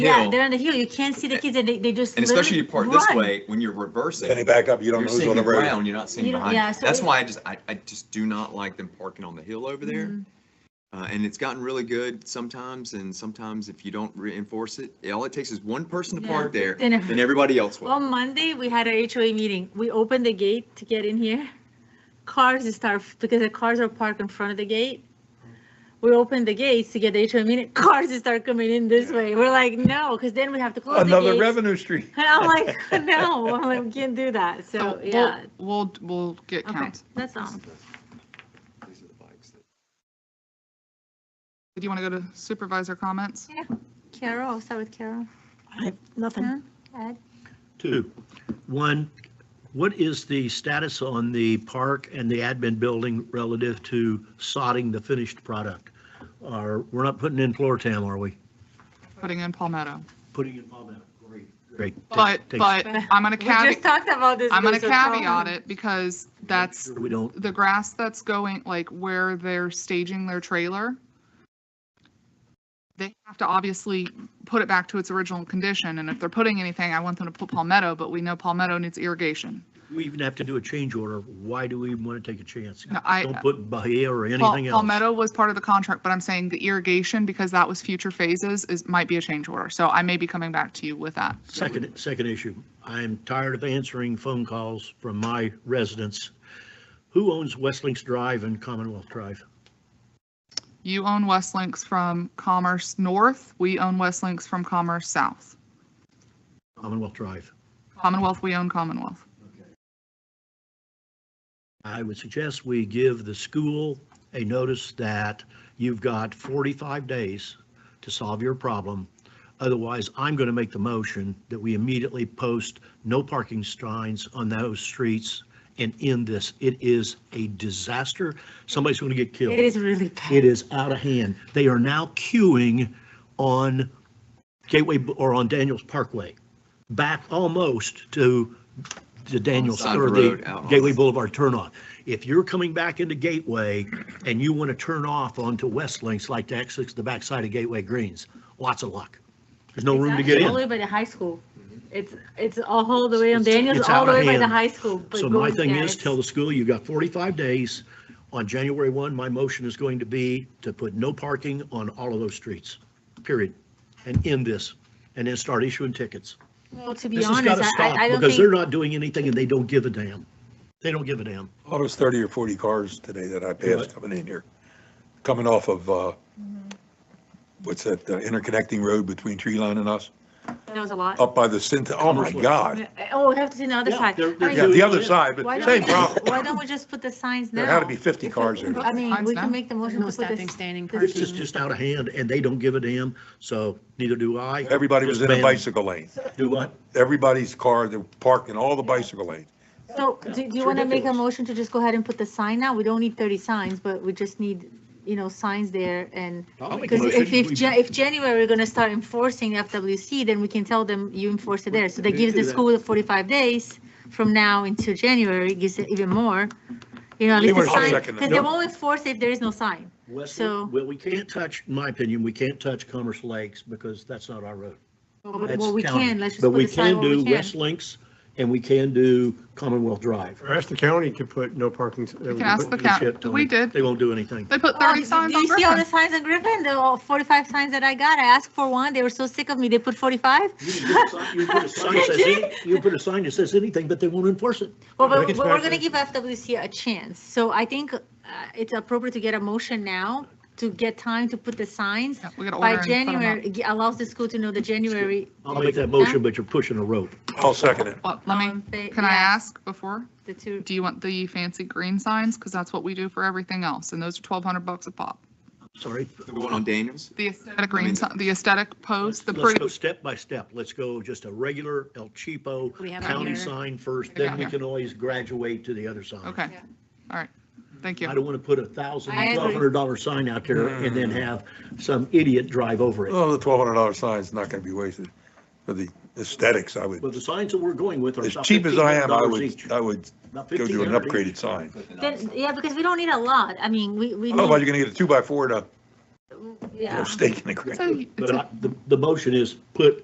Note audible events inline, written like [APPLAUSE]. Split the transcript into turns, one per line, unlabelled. Yeah,
hill,
they're on the hill. You can't see the kids and they, they just.
and especially you
literally
park this
run.
way, when you're reversing,
Can you back up? You don't
you're
lose
seeing
on the
the
road.
ground, you're not seeing
You don't-
behind.
yeah, so
That's
it-
why I just, I, I just do not like them parking on the hill over there.
Mhm.
Uh, and it's gotten really good sometimes, and sometimes if you don't reinforce it, all it takes is one person to
Yeah.
park there,
And [LAUGHS]
then everybody else will.
On Monday, we had our HOA meeting. We opened the gate to get in here. Cars start, because the cars are parked in front of the gate. We opened the gates to get the HOA meeting. [LAUGHS] Cars start coming in this way. We're like, no, because then we have to close the
Another
gates.
revenue stream.
[LAUGHS] And I'm like, [LAUGHS] no, I'm like, we can't do that.
So
So, yeah,
Oh, We'll, we'll- we'll get
okay,
counts.
that's all.
These are the bikes that-
Do you want to go to supervisor comments?
Carol, I'll start with Carol.
I have nothing.
Ed?
Two. One, what is the status on the park and the admin building relative to sodding the finished product? Are, we're not putting in floor tam, are we?
Putting in Palmetto.
Putting in palmetto. Great. Great. Take-
But,
take-
but I'm going
We
to
just
caveat,
talked about this.
I'm going to
guys, so Carol-
caveat it because that's
Sure We don't,
the grass that's going, like where they're staging their trailer, they have to obviously put it back to its original condition. And if they're putting anything, I want them to put palmetto, but we know palmetto needs irrigation.
we even have to do a change order. Why do we even want to take a chance?
No, I-
Don't put Bahia or
Pal-
anything else.
Palmetto was part of the contract, but I'm saying the irrigation, because that was future phases, is, might be a change order. So I may be coming back to you with that.
Second, second issue, I'm tired of answering phone calls from my residents. Who owns Westlinks Drive and Commonwealth Drive?
You own West Links from Commerce North. We own West Links from Commerce South.
Commonwealth Drive.
Commonwealth, we own Commonwealth.
I would suggest we give the school a notice that you've got 45 days to solve your problem. Otherwise, I'm going to make the motion that we immediately post no parking signs on those streets and end this. It is a disaster. Somebody's going to get killed.
It is really bad.
It is out of hand. They are now queuing on Gateway B- or on Daniels Parkway, back almost to the Daniels
side of
or
the road, out
the
on-
Gateway Boulevard turnoff. If you're coming back into Gateway and you want to turn off onto West Links like to exit to the backside of Gateway Greens, lots of luck. There's no room to get
It's All the
in.
way by the high school. It's, it's all the way on Daniels,
it's
all the
out
way
of
by the
hand.
high school. but
So my
going-
thing
yeah,
is,
it's-
tell the school, you've got 45 days. On January 1, my motion is going to be to put no parking on all of those streets, period. And end this, and then start issuing tickets.
Well, to be
This has got
honest,
to
I- I, I
stop
don't
because they're
think,
not doing anything and they don't give a damn. They don't give a damn.
Oh, there's 30 or 40 cars today that I
Right.
passed coming in here, coming off of, uh,
Mm-hmm.
what's that, the interconnecting road between Tree Line and us,
that was a lot.
up by the Cinta, oh my
Commercial.
God.
Oh, we have to see the other
Yeah,
side.
they're-
I
they're
mean,
Yeah, the other side,
Why
but
don't,
same
we-
problem.
why don't we just put the signs now?
There had to be 50 cars in there.
I mean,
Signs
we can
now?
make the motion to
No
put
stopping,
this.
standing,
It's just,
parking.
just out of hand and they don't give a damn, so neither do I.
Everybody was
Just
in a
ban-
bicycle lane.
Do what?
Everybody's car, they're parking all the bicycle lanes.
So do do you want to make a
ridiculous.
motion to just go ahead and put the sign now? We don't need 30 signs, but we just need, you know, signs there and,
I'll make a
because if,
motion.
if,
We-
Ja- if January, we're going to start enforcing FWC, then we can tell them you enforce it there. So that
We
gives
do
the
that.
school 45 days from now until January, gives it even more. You know, at least
Anyway,
a
I'll
sign,
second that.
because they
No.
won't enforce if there is no sign.
West-
so-
Well, we can't touch, in my opinion, we can't touch Commerce Lakes because that's not our road.
But
That's
Well, we
county.
can, let's just
But
put
we
the sign
can
where
do
we can.
West Links and we can do Commonwealth Drive.
Or ask the county to put no parking. We
can ask the
Holy
county.
shit, Tony.
We did.
They won't do anything.
They put
Oh,
30
did-
signs
did
on
you see all the
Griffin.
signs on Griffin? The all 45 signs that I got, I asked for one, they were so sick of me, they put 45?
You can put a sign- you can put a sign that says any- You can put a sign that says anything, but they won't enforce it.
Well, but
Look, it's
but we're
not-
gonna give FWC a chance, so I think uh, it's appropriate to get a motion now to get time to put the signs.
Yeah, We got to order.
By
and put 'em up.
January, it allows the school to know the January.
I'll make that motion, but you're pushing a rope.
I'll second it.
Well, let
um,
me,
they-
can I
yeah,
ask before?
The two,
Do you want the fancy green signs? Because that's what we do for everything else. And those are 1,200 bucks a pop.
Sorry.
The one on Daniels,
The aesthetic
mean-
green, si- the aesthetic post, the
Let's
pretty,
go step by step. Let's go just a regular El Cheapo
We have it
county
here.
sign first,
Yeah.
then we can always graduate to the other sign.
okay.
Yeah.
All right. Thank you.
I don't want to put a thousand,
I agree.
twelve hundred dollar sign out there and then
Mm.
have some idiot drive over it.
Oh, the $1,200 sign's not going to be wasted for the aesthetics, I would.
But the signs that we're going with are
As
about
cheap as I am, I
$1,500
would,
each.
I would
About
go do an
$1,500 each.
upgraded sign.
then, yeah, because we don't need a lot, I mean, we, we.
Otherwise,
need-
you're gonna get a two by four to
yeah.
Stake in the ground.
It's a- it's
But
a
I- the, the motion is put